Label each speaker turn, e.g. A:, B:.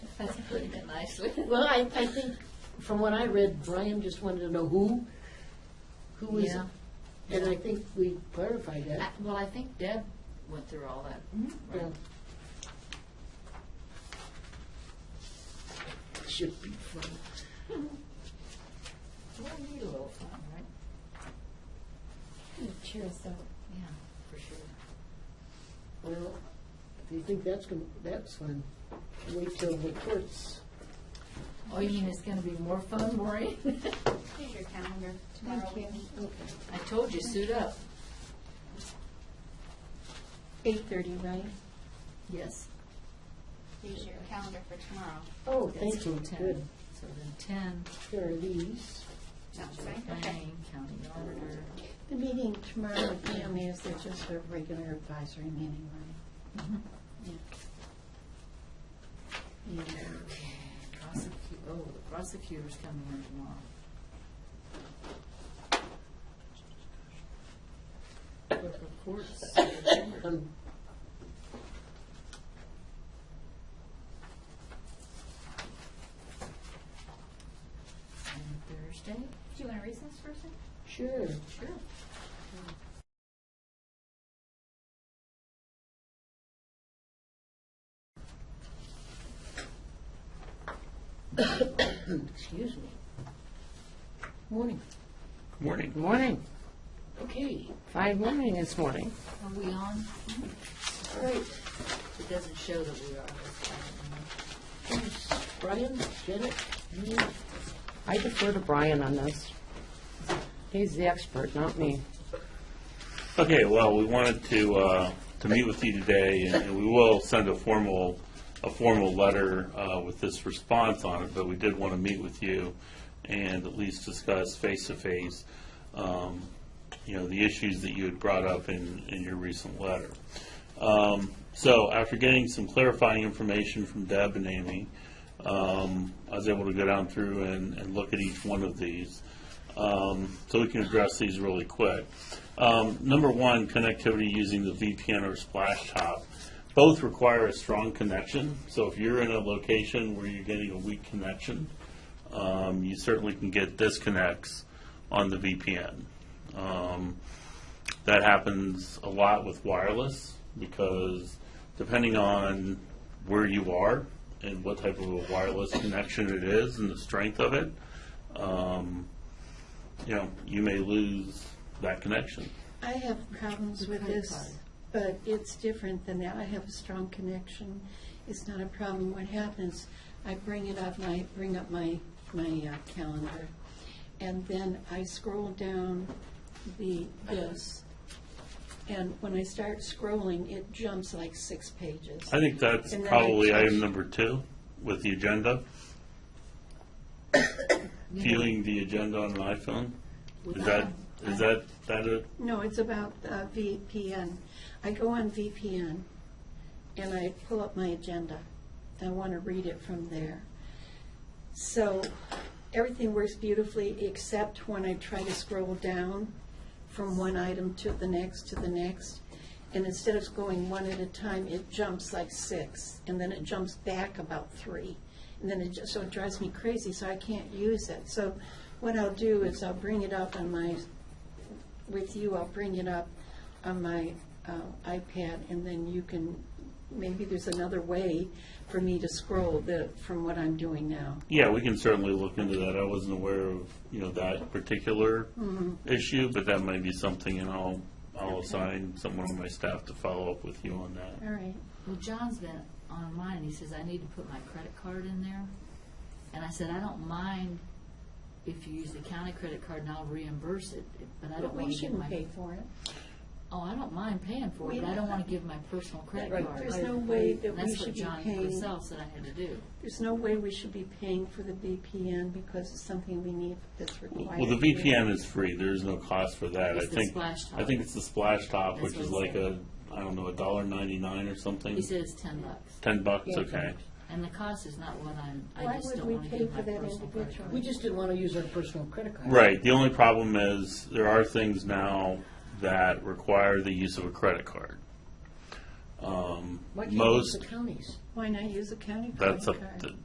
A: That's putting it nicely.
B: Well, I, I think, from what I read, Brian just wanted to know who, who was,
A: Yeah.
B: and I think we clarified
A: I-
B: that.
A: uh, Well, I think Deb went through all that.
B: Yeah.
A: right?
B: Should be fun.
A: Well, we need a little fun, right?
C: Cheer us up.
A: Yeah, for sure.
B: Well, do you think that's gonna, that's fun? Wait till the courts.
A: Oh, you mean it's gonna be more fun, Maureen?
D: Here's your calendar tomorrow.
C: Thank you.
A: I told you, suit up.
C: Eight thirty, right?
A: Yes.
D: Here's your calendar for tomorrow.
B: Oh,
A: That's
B: thank you,
A: till 10.
B: good.
A: So then ten,
B: Here are these.
D: Sounds right? Okay.
A: planning, county auditor.
C: The meeting tomorrow with them is, it's just a regular advisory meeting, right?
A: Mhm.
C: Yeah.
A: Okay, prosecu- oh, the prosecutor's coming in tomorrow. Clerk of courts.
B: Um,
A: And Thursday?
D: Do you want to recess for a second?
B: Sure.
A: Sure.
B: Excuse me. Morning.
E: Morning.
F: Morning,
B: Okay,
F: five morning this morning.
A: Are we on?
B: all right.
A: It doesn't show that we are. That's fine.
B: Please, Brian, Janet, you,
F: I defer to Brian on this. He's the expert, not me.
E: Okay, well, we wanted to, uh, to meet with you today, and and we will send a formal, a formal letter uh, with this response on it, but we did want to meet with you and at least discuss face-to-face, um, you know, the issues that you had brought up in, in your recent letter. Um, So after getting some clarifying information from Deb and Amy, um, I was able to go down through and, and look at each one of these. Um, So we can address these really quick. Um, Number one, connectivity using the VPN or Splash Top. Both require a strong connection, so if you're in a location where you're getting a weak connection, um, you certainly can get disconnects on the VPN. Um, that happens a lot with wireless because depending on where you are and what type of a wireless connection it is and the strength of it, um, you know, you may lose that connection.
C: I have problems with this, but it's different than that. I have a strong connection. It's not a problem. What happens, I bring it up, and I bring up my, my uh, calendar, and then I scroll down the, this, and when I start scrolling, it jumps like six pages.
E: I think that's
C: And then I
E: probably
C: change-
E: item number two with the agenda, viewing the agenda on an iPhone. Is that, is that, that it?
C: No, it's about uh, VPN. I go on VPN and I pull up my agenda. I want to read it from there. So everything works beautifully except when I try to scroll down from one item to the next to the next. And instead of going one at a time, it jumps like six and then it jumps back about three. And then it just, so it drives me crazy, so I can't use it. So what I'll do is I'll bring it up on my with you, I'll bring it up on my uh, iPad, and then you can, maybe there's another way for me to scroll the, from what I'm doing now.
E: Yeah, we can certainly look into that. I wasn't aware of, you know, that particular
A: Mm-hmm.
E: issue, but that might be something, and I'll, I'll assign someone on my staff to follow up with you on that.
C: All right.
A: Well, John's been online, and he says, I need to put my credit card in there. And I said, I don't mind if you use the county credit card and I'll reimburse it, but I
C: But
A: don't want
C: we
A: to give
C: shouldn't
A: my.
C: pay for it.
A: Oh, I don't mind paying for
C: We-
A: it, but I don't want to give my personal credit
C: Right.
A: card.
C: There's no way that
A: And
C: we should be
A: That's what John
C: paying-
A: himself said I had to do.
C: There's no way we should be paying for the VPN because it's something we need that's required.
E: Well, the VPN is free. There is no cost for that. I
A: It's the
E: think,
A: splash top.
E: I think it's the splash top,
A: That's
E: which
A: what
E: is
A: he
E: like
A: said.
E: a, I don't know, a dollar ninety-nine or something.
A: He said it's ten bucks.
E: Ten bucks,
B: Yeah.
E: okay.
A: And the cost is not what I'm, I
C: Why
A: just
C: would
A: don't
C: we
A: want to
C: pay
A: give my
C: for that
A: personal credit
C: individually?
A: card.
B: we just didn't want to use our personal credit card.
E: Right, the only problem is, there are things now that require the use of a credit card. Um,
B: Why can't we use
E: Most,
B: the counties?
C: Why not use a county credit
E: that's
C: card?
E: up, to-